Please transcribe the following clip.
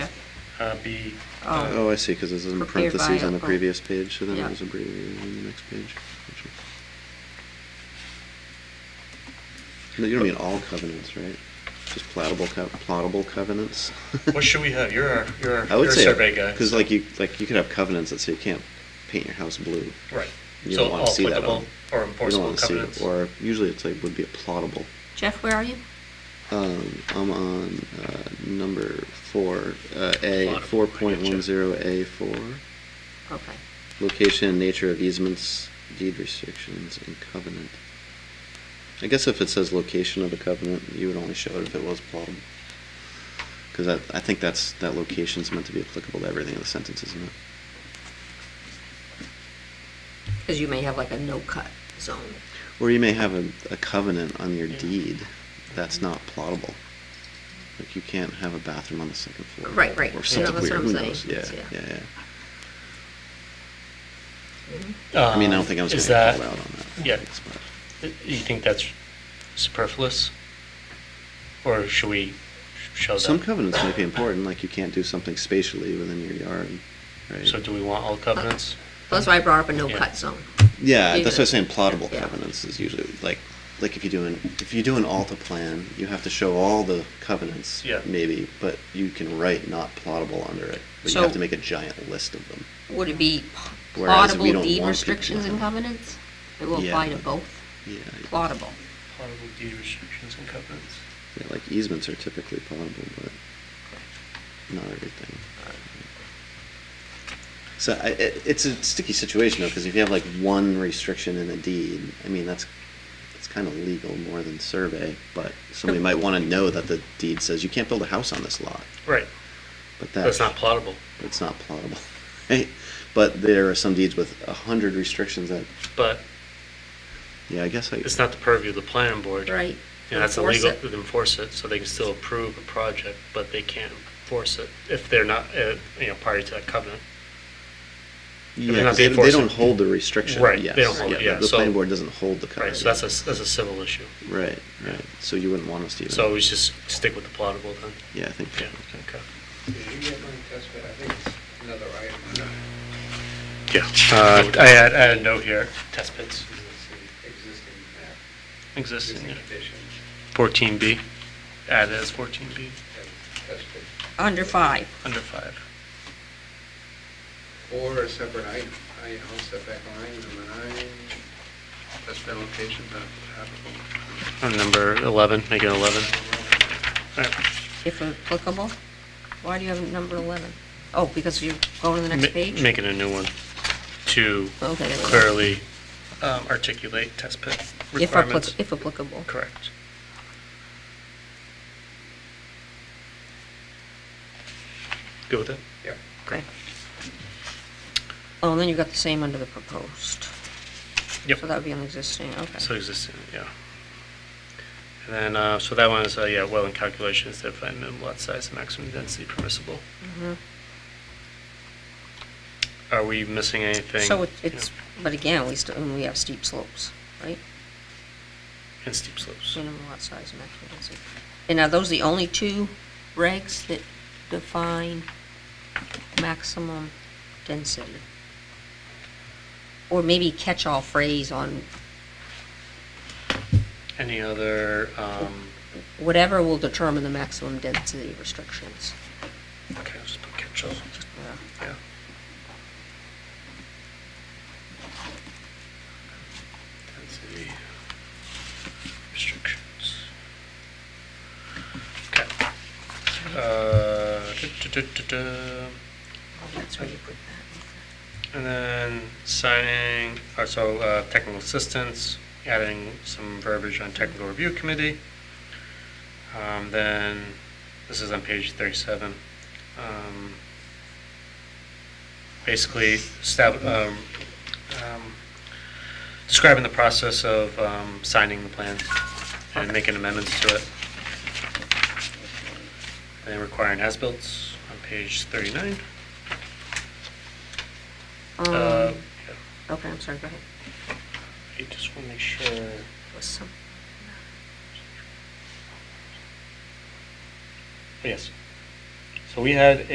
uh, be. Oh. uh, Oh, I see, because it's in Prepared by parentheses on the Apple. previous page, so then Yeah. it was abbreviated on the next page. Gotcha. No, You don't mean all covenants, right? Just plottable, co- plottable covenants? What should we have? You're our, you're our I you're would a say, uh, survey guy. because like you, like you could have covenants that say you can't paint your house blue. Right. you So don't wanna all see that applicable on- or You don't enforceable want to see it, covenants. or usually it's like, would be a plottable. Jeff, where are you? Um, I'm on, uh, number four, uh, A, four Plottable, I point getcha. one zero A four. Okay. Location and nature of easements, deed restrictions, and covenant. I guess if it says location of a covenant, you would only show it if it was plottable. Because I, I think that's, that location's meant to be applicable to everything in the sentence, isn't it? Because you may have like a no-cut zone. Or you may have a, a covenant on your Yeah. deed that's not plottable. Like you can't have a bathroom on the second floor. Right, right. Or Yeah, something that's weird, what I'm who saying. knows? Yeah, Yeah. yeah, yeah. I mean, I don't think I was Um, Is gonna that, get called out on that. yeah. Thanks, but- you think that's superfluous? Or should we show Some them? covenants might be important, like you can't do something spatially within your yard, right? So do we want all covenants? That's why I brought up a Yeah. no-cut zone. yeah, do that's what I'm that. saying. Plottable Yeah. covenants is usually like, like if you do an if you do an alta plan, you have to show all the covenants, Yeah. maybe, but you can write not plottable under it, but So- you have to make a giant list of them. Would it be Whereas we don't plottable want deed people restrictions to- and covenants? It will Yeah. apply to both, Yeah, plottable. Plottable deed restrictions and covenants. yeah, like easements are typically plottable, but not everything. So I, it, it's a sticky situation though, because if you have like one restriction in a deed, I mean that's it's kind of legal more than survey, but somebody might want to know that the deed says you can't build a house on this lot, Right, but that that's not plottable, it's not plottable, right? But there are some deeds with a hundred restrictions that but yeah, I guess I it's not the purview of the planning board. Right. And that's Enforce illegal it. to enforce it, so they can still approve a project, but they can't enforce it if they're not, uh, you know, party to that covenant. yeah, they're not 'cause they, being they forced don't to- hold the restriction. Right, they yes, don't hold it, yeah, The so- planning board doesn't hold the Right, covenant. so that's a, that's a civil issue. right, right. So you wouldn't want us to even. So we should just stick with the plottable then. yeah, I think Yeah, okay. Did you get my test bit? I think it's another item. Yeah, uh, I had, I had a note here, test pits Existing map, existing, existing conditions, fourteen B, add as fourteen B, and test pit, Under five, under five. or a separate item, I, you know, setback line, number nine, test pit locations not applicable. On number eleven, make it eleven. if applicable. Why do you have number 11? Oh, because you're going to the next page? Making a new one to Okay, there we go. clearly um, articulate test pit If appli- requirements. If applicable. Correct. Go with it? Yep. Okay. Oh, and then you've got the same under the proposed. Yep. So that would be on existing, okay. So existing, yeah. And then, uh, so that one is, uh, yeah, well in calculations, define minimum lot size and maximum density permissible. Mhm. Are we missing anything? So it- Yeah. it's, but again, we still, and we have steep slopes, right? And steep slopes. Minimum lot size, maximum density. And are those the only two regs that define maximum density? Or maybe catch-all phrase on Any other, um, whatever will determine the maximum density restrictions. okay, I'll just put catch-all, Just, uh, yeah. Density restrictions. Okay. Uh, du-du-du-du-du. That's where you put And then signing, uh, so uh, technical assistance, adding some verbiage on technical review committee. Um, Then, this is on page 37. Um, Basically, stab- um, um, describing the process of um, signing the plan and making amendments to it. And requiring as-bills on page 39. Uh, that. Um, yeah. Okay, I'm sorry, go ahead. I just want to make sure. oh, Was some- Yes. So we had